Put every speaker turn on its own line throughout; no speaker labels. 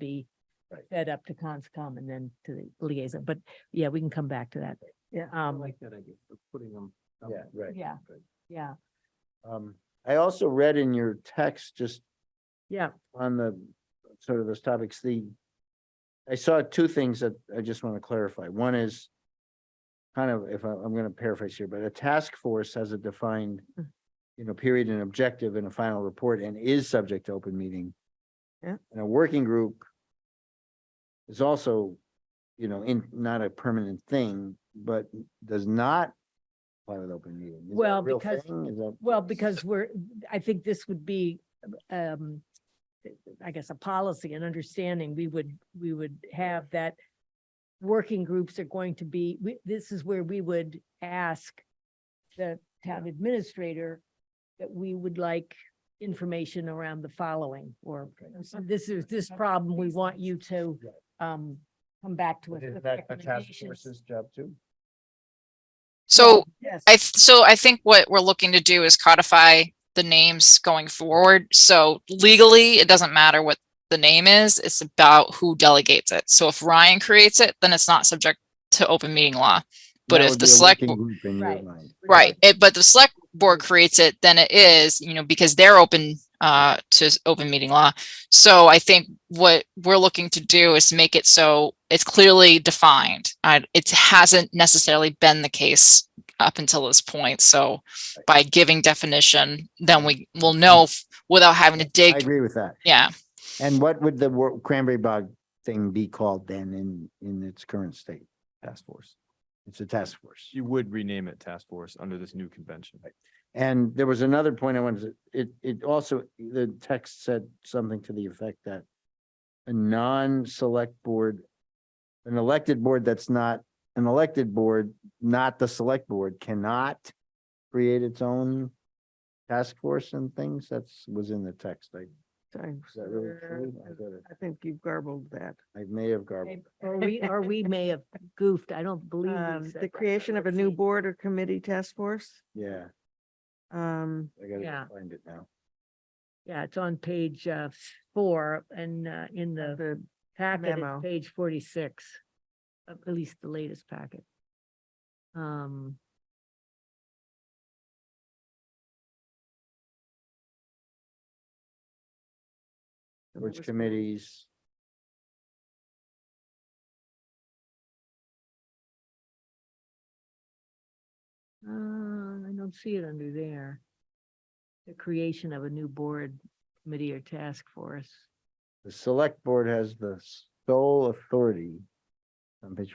be
Right.
fed up to conscom and then to the liaison, but yeah, we can come back to that. Yeah,
I
um,
like that idea, of putting them.
Yeah, right.
yeah,
Good.
yeah,
Um, I also read in your text, just
yeah,
on the, sort of those topics, the, I saw two things that I just want to clarify. One is kind of, if I, I'm going to paraphrase here, but a task force has a defined,
Mm.
you know, period and objective and a final report and is subject to open meeting.
Yeah.
And a working group is also, you know, in, not a permanent thing, but does not apply with open meeting. Is that a
Well,
real
because-
thing? Is that?
Well, because we're, I think this would be, um, I guess, a policy and understanding, we would, we would have that working groups are going to be, we, this is where we would ask the town administrator that we would like information around the following, or this is, this problem, we want you to, um, come back to us
Isn't
with
that a task
recommendations.
force's job too?
So
Yes,
I, th- so I think what we're looking to do is codify the names going forward. So legally, it doesn't matter what the name is, it's about who delegates it. So if Ryan creates it, then it's not subject to open meeting law. But
That
if
would be
the
a
select,
working
bo-
group in your
Right.
mind.
right, it, but the select board creates it, then it is, you know, because they're open uh to s- open meeting law. So I think what we're looking to do is make it so it's clearly defined. Uh, it hasn't necessarily been the case up until this point. So by giving definition, then we will know f- without having to
I
dig.
agree with that.
Yeah.
And what would the wor- cranberry bog thing be called then in, in its current state? Task force. It's a task force.
You would rename it task force under this new convention.
And there was another point I wanted to, it, it also, the text said something to the effect that a non-select board, an elected board that's not, an elected board, not the select board, cannot create its own task force and things. That's, was in the text. Like,
Sorry, Um,
is that really true? I got it.
I think you garbled that.
I may have garbled.
or we, or we may have goofed, I don't believe. we
Um,
said
the
that,
creation
but
of a
let's
new
see.
board or committee task force.
Yeah,
Um,
I gotta
Yeah.
go find it now.
Yeah, it's on page uh four and uh in the
the,
packet,
memo.
it's page forty-six. uh, At least the latest packet. Um.
That
Which
was-
committees?
Uh, I don't see it under there. The creation of a new board committee or task force.
The select board has the sole authority. On page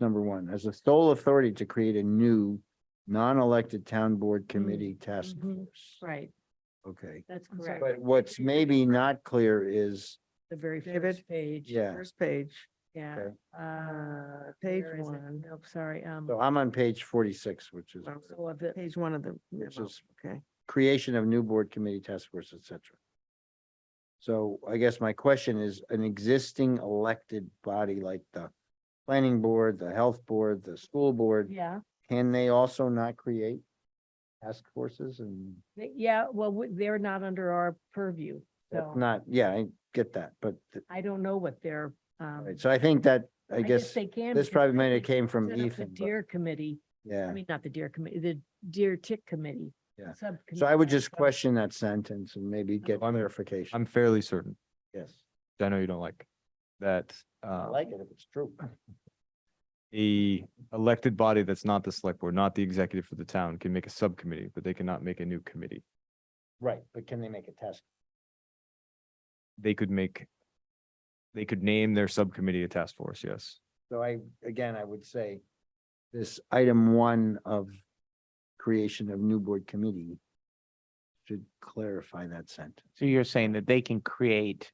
number one, has the sole authority to create a new non-elected town board committee task
mhm.
force.
Right,
Okay,
that's
I'm sorry.
correct.
but what's maybe not clear is,
The very
David?
first page.
yeah,
First page,
Yeah.
okay.
Uh,
page
where is it?
one.
Nope, sorry, um,
so I'm on page forty-six, which is
Well,
so of the,
page one of the memo,
is-
okay.
creation of new board committee task force, et cetera. So I guess my question is, an existing elected body like the planning board, the health board, the school board,
yeah.
Can they also not create task forces and
They- Yeah, well, we- they're not under our purview,
that's
so
not, yeah, I get that, but, th-
I don't know what they're, um.
right, so I think that, I guess,
they can
this
because I
probably might have
think
came from
set up the
Ethan, but-
Deer committee, I
yeah.
mean, not the deer committee, the deer tick committee.
Yeah.
subcommittee,
So I would just
so-
question that sentence and
Um,
maybe get
I'm-
clarification.
I'm fairly certain,
Yes,
which I know you don't like, that
I
uh,
like it if it's true.
a elected body that's not the select board, not the executive for the town, can make a subcommittee, but they cannot make a new committee.
Right, but can they make a task?
They could make, they could name their subcommittee a task force, yes.
So I, again, I would say this item one of creation of new board committee should clarify that sentence.
So you're saying that they can create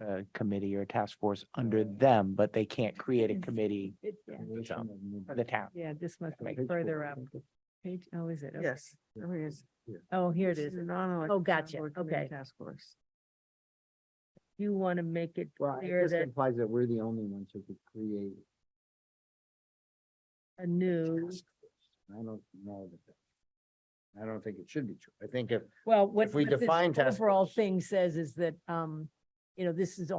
a committee or a task force under them, but they can't create a
Yes.
committee
It- yeah,
Creation of new-
for the town?
Yeah, this must be
Page four.
further up. Page, oh, is it? Okay.
Yes, there it is.
Oh, here it
This
is. Oh,
a non-elected town
gotcha.
board committee
Okay.
Task force.
You want to make it
Well, it
clear
just
that
implies that we're the only ones who could create
a new,
task force. I don't know that. that- I don't think it should be true. I think if
well, what.
If we
what this
define task
Overall
force-
thing says is that, um, you know, this is